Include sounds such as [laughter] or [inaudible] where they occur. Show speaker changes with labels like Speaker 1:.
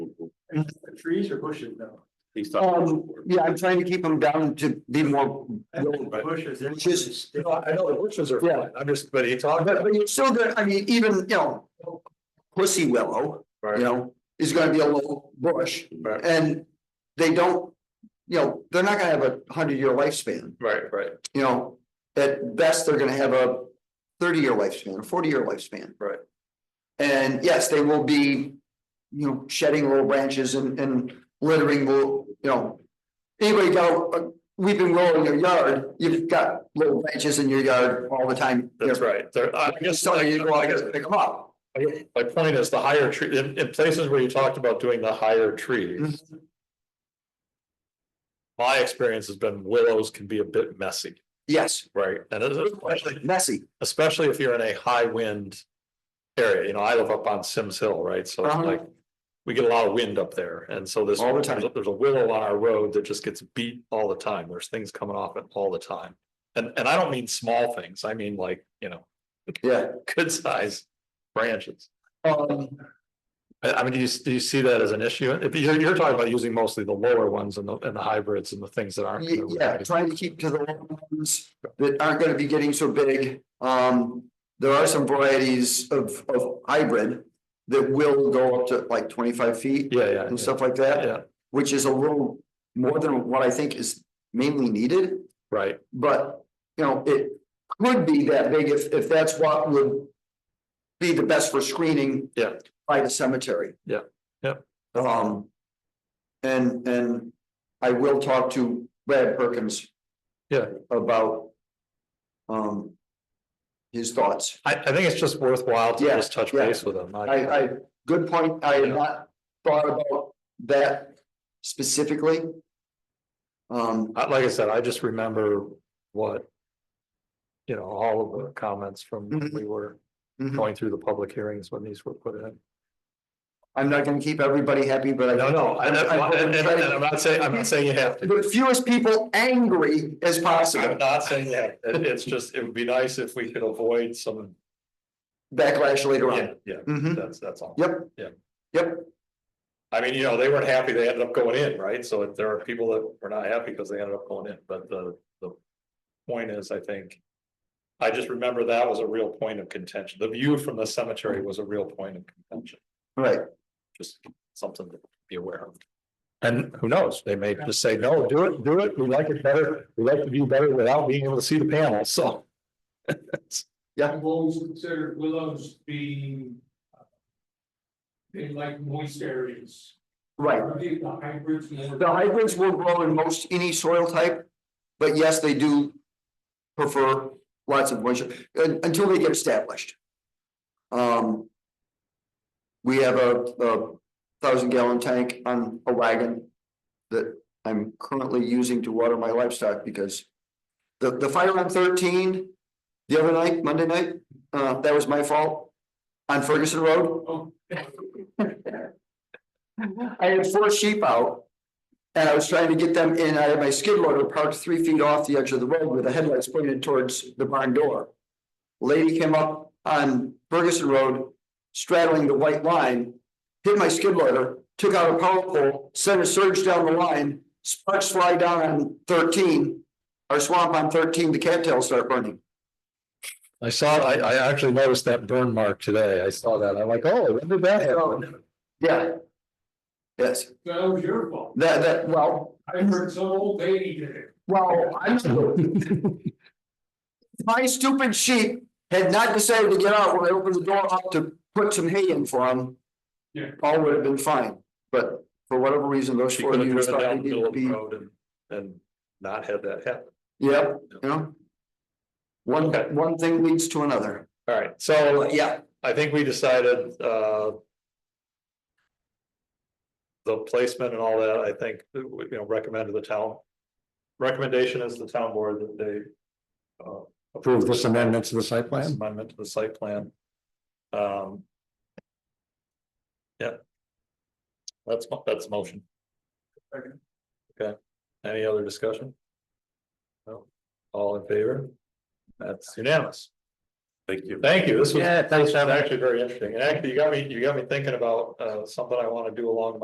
Speaker 1: trees or bushes though?
Speaker 2: He's
Speaker 3: Um,
Speaker 2: talking.
Speaker 3: yeah, I'm trying to keep them down to be more.
Speaker 1: I think Bushes. it's-
Speaker 3: Bushes.
Speaker 1: it's-
Speaker 4: I know the bushes are
Speaker 3: Yeah.
Speaker 4: fine, I'm just, but it's all.
Speaker 3: But, but you're still gonna, I mean, even, you know, pussy willow, you know, is gonna be a little bush.
Speaker 4: Right.
Speaker 3: And they don't, you know, they're not gonna have a hundred year lifespan,
Speaker 4: Right, right,
Speaker 3: you know. At best, they're gonna have a thirty year lifespan, a forty year lifespan.
Speaker 4: Right.
Speaker 3: And yes, they will be, you know, shedding little branches and, and littering will, you know. Anybody uh, got a weeping willow in your yard, you've got little branches in your yard all the time.
Speaker 4: that's
Speaker 3: They're-
Speaker 4: right, There- I guess,
Speaker 3: So you go,
Speaker 4: I
Speaker 3: I
Speaker 4: guess,
Speaker 3: guess, pick them up.
Speaker 4: my point is the higher tree, in, in places where you talked about doing the higher trees. My experience has been willows can be a bit messy,
Speaker 3: Yes,
Speaker 4: right, and especially,
Speaker 3: messy.
Speaker 4: especially if you're in a high wind. Area, you know, I live up on Sims Hill, right, so it's
Speaker 3: Uh-huh.
Speaker 4: like, we get a lot of wind up there, and so this.
Speaker 3: All the time.
Speaker 4: There's a willow on our road that just gets beat all the time, there's things coming off it all the time. And, and I don't mean small things, I mean like, you know,
Speaker 3: Yeah.
Speaker 4: good size branches.
Speaker 3: Um,
Speaker 4: I, I mean, do you, do you see that as an issue? If you're, you're talking about using mostly the lower ones and the, and the hybrids and the things that aren't.
Speaker 3: y- yeah, trying to keep to the long ones that aren't gonna be getting so big. Um, there are some varieties of, of hybrid that will go up to like twenty-five feet
Speaker 4: Yeah, yeah,
Speaker 3: and stuff like that,
Speaker 4: yeah,
Speaker 3: which is a little more than what I think is mainly needed.
Speaker 4: right,
Speaker 3: But, you know, it could be that big if, if that's what would be the best for screening.
Speaker 4: Yeah.
Speaker 3: By the cemetery.
Speaker 4: Yeah, yep.
Speaker 3: Um, and, and I will talk to Brad Perkins.
Speaker 4: Yeah.
Speaker 3: About. Um. His thoughts.
Speaker 4: I, I think it's just worthwhile to
Speaker 3: Yeah,
Speaker 4: just touch
Speaker 3: yeah.
Speaker 4: base with them.
Speaker 3: I, I, good point. I had not thought about that specifically. Um,
Speaker 4: I- Like I said, I just remember what. You know, all of the comments from when
Speaker 3: Mhm.
Speaker 4: we were
Speaker 3: mhm.
Speaker 4: going through the public hearings when these were put in.
Speaker 3: I'm not gonna keep everybody happy, but I.
Speaker 4: No, no, and,
Speaker 3: I-
Speaker 4: and, and and I'm not saying, I'm
Speaker 3: [laughs]
Speaker 4: not saying you have to.
Speaker 3: the fewest people angry as
Speaker 4: I'm
Speaker 3: possible.
Speaker 4: not saying that. It- It's just, it would be nice if we could avoid some,
Speaker 3: Backlash later
Speaker 4: yeah,
Speaker 3: on.
Speaker 4: yeah,
Speaker 3: Mhm.
Speaker 4: that's, that's all.
Speaker 3: Yep.
Speaker 4: Yeah.
Speaker 3: Yep,
Speaker 4: I mean, you know, they weren't happy, they ended up going in, right? So if there are people that were not happy because they ended up going in, but the, the point is, I think. I just remember that was a real point of contention. The view from the cemetery was a real point of contention,
Speaker 3: right.
Speaker 4: just something to be aware of. And who knows, they may just say, no, do it, do it, we like it better, we like the view better without being able to see the panel, so.
Speaker 5: I've always considered willows being. uh, They like moist areas.
Speaker 3: Right.
Speaker 5: Are they the hybrids more?
Speaker 3: The hybrids will grow in most any soil type, but yes, they do prefer lots of moisture un- until they get established. Um. We have a a thousand gallon tank on a wagon that I'm currently using to water my livestock because the the fire on thirteen the other night, Monday night, uh, that was my fault on Ferguson Road.
Speaker 5: Oh,
Speaker 3: I had four sheep out. And I was trying to get them in, I had my skid loader parked three feet off the edge of the road with the headlights pointed towards the barn door. Lady came up on Ferguson Road, straddling the white line. Hit my skid loader, took out a power pole, sent a surge down the line, sparks fly down on thirteen. Our swamp on thirteen, the cattails start burning.
Speaker 4: I saw, I, I actually noticed that burn mark today. I saw that. I'm like, oh, when did that happen?
Speaker 3: Yeah. Yes,
Speaker 5: that was your fault.
Speaker 3: that that, well,
Speaker 5: I heard some old lady did it.
Speaker 3: Well, I'm.
Speaker 4: [laughs]
Speaker 3: My stupid sheep had not decided to get out when I opened the door up to put some hay in for them.
Speaker 5: Yeah.
Speaker 3: All would have been fine, but for whatever reason, those
Speaker 4: She
Speaker 3: four
Speaker 4: could have
Speaker 3: units
Speaker 4: driven
Speaker 3: thought they
Speaker 4: down the
Speaker 3: needed
Speaker 4: middle
Speaker 3: to
Speaker 4: of
Speaker 3: be,
Speaker 4: the road and, and not had that happen.
Speaker 3: yep, you know? One,
Speaker 4: Okay.
Speaker 3: one thing leads to another,
Speaker 4: All right, so
Speaker 3: but yeah,
Speaker 4: I think we decided, uh. The placement and all that, I think, you know, recommended the town. Recommendation is the town board that they. uh, Approve this amendment to the site plan? Amendment to the site plan. Um. Yeah. That's, mo- that's motion. Okay, any other discussion? No, all in favor? That's unanimous.
Speaker 2: Thank you.
Speaker 4: Thank you, this was, this was actually very interesting, and actually, you got me, you got me thinking about, uh, something I wanna do along